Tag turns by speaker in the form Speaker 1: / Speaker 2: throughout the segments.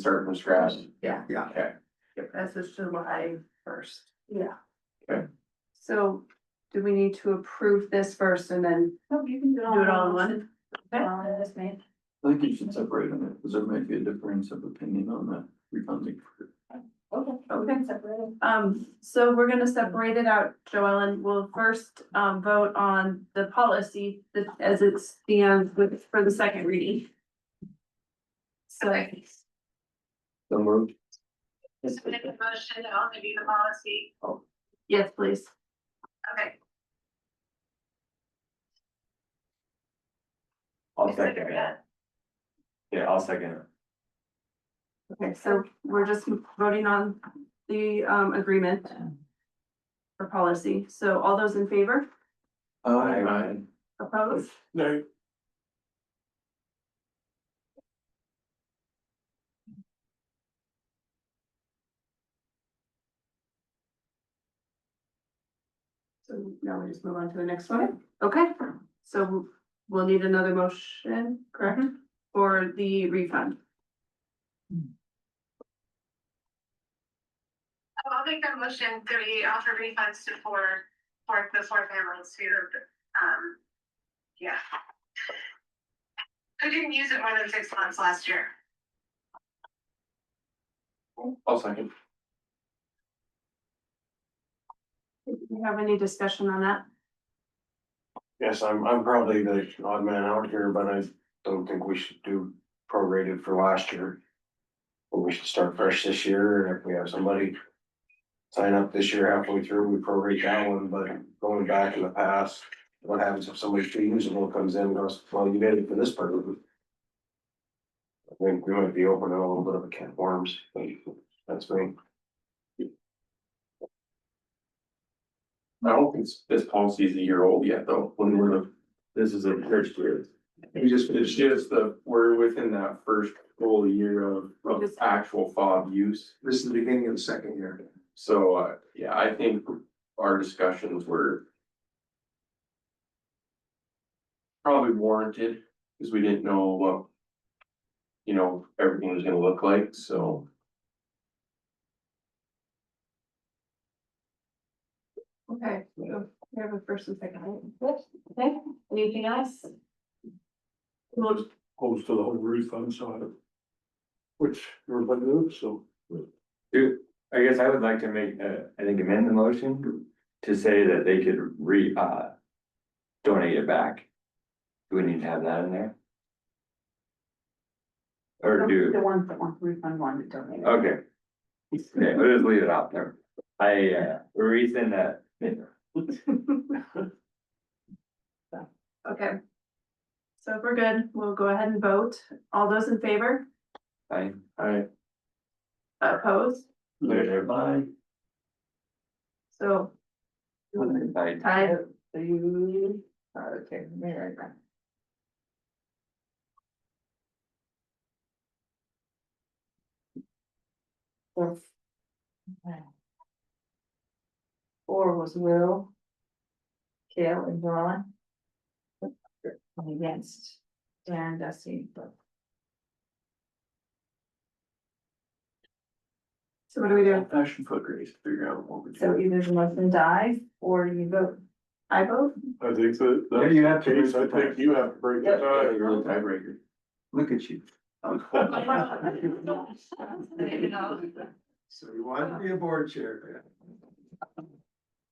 Speaker 1: start from scratch.
Speaker 2: Yeah.
Speaker 3: Yeah.
Speaker 1: Okay.
Speaker 2: This is July first. Yeah.
Speaker 1: Okay.
Speaker 4: So do we need to approve this first and then?
Speaker 5: No, Oh, you can do it all.
Speaker 2: Do it all in one?
Speaker 5: Uh, that's me.
Speaker 3: I think you should separate on it, because there might be a difference of opinion on that refunding.
Speaker 5: Okay, okay, separate.
Speaker 4: Um, so we're gonna separate it out, Joellen. We'll first um vote on the policy that as it stands with for the second reading. So
Speaker 3: So moved.
Speaker 6: Just make a motion to only do the policy.
Speaker 4: yes, please.
Speaker 6: Okay.
Speaker 1: I'll second it. Yeah, I'll second it.
Speaker 4: Okay, so we're just voting on the um agreement for policy. So all those in favor?
Speaker 3: Aye.
Speaker 4: Opposed?
Speaker 1: No.
Speaker 4: So now we just move on to the next one. Okay, so we'll need another motion, correct? For the refund.
Speaker 6: I'll make that motion that we offer refunds to four, for the four families who, um, yeah. Who didn't use it more than six months last year.
Speaker 1: I'll second.
Speaker 4: Do you have any discussion on that?
Speaker 7: Yes, I'm, I'm probably the odd man out here, but I don't think we should do prorated for last year. But we should start fresh this year, and if we have somebody sign up this year halfway through, we prorate that one, but going back in the past, what happens if somebody feasible comes in and goes, well, you did it for this person? I think we might be opening a little bit of a can of worms, but that's me.
Speaker 1: I don't think s- this policy is a year old yet, though, when we're, the- this is a first year. We just, it's just the, we're within that first full year of, of actual fob use.
Speaker 7: This is the beginning of the second year.
Speaker 1: So, uh, yeah, I think our discussions were probably warranted, because we didn't know what, you know, everything was gonna look like, so.
Speaker 4: Okay, we have a first and second. item.
Speaker 5: Okay, anything else?
Speaker 4: Well,
Speaker 7: Goes to the whole refund side. Which everybody moves, so.
Speaker 8: I guess I would like to make, uh, I think amend the motion to say that they could re, uh. Donate it back. Do we need to have that in there? Or do,
Speaker 5: The ones that want refund wanted to donate.
Speaker 8: okay. Okay, we'll just leave it out there. I, uh, reason that,
Speaker 4: Okay. So if we're good, we'll go ahead and vote. All those in favor,
Speaker 8: I,
Speaker 1: I,
Speaker 4: opposed,
Speaker 3: Aye.
Speaker 4: so
Speaker 8: I,
Speaker 4: I,
Speaker 5: You, okay, let me write that. Four. Four was Will. Kale and Ron. I'm Against. Dan, Dusty, but.
Speaker 4: so what do we do?
Speaker 1: Fashion foot race, figure out what we
Speaker 5: So either the motion dies or you vote.
Speaker 4: I vote,
Speaker 7: I think that.
Speaker 3: Yeah, you have to raise the
Speaker 7: I think you have to break it.
Speaker 1: Uh, you're the tiebreaker.
Speaker 3: Look at you. So you want to be a board chair.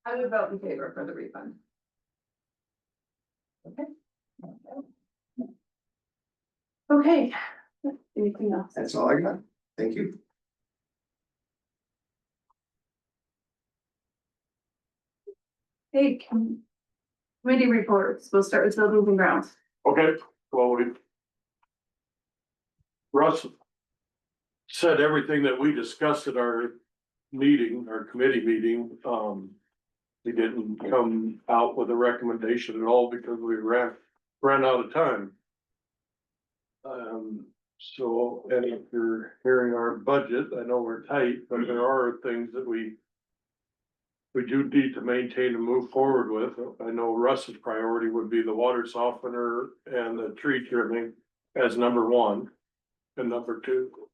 Speaker 4: I would vote in favor for the refund. Okay, anything else?
Speaker 3: That's all I got. Thank you.
Speaker 4: Hey, com- committee reports, we'll start with buildings and grounds.
Speaker 7: Okay, well, we. Russ. Said everything that we discussed at our meeting, our committee meeting, um. He didn't come out with a recommendation at all because we ran, ran out of time. Um, so, and if you're hearing our budget, I know we're tight, but there are things that we. We do need to maintain and move forward with. I know Russ's priority would be the water softener and the tree trimming as number one. And number two,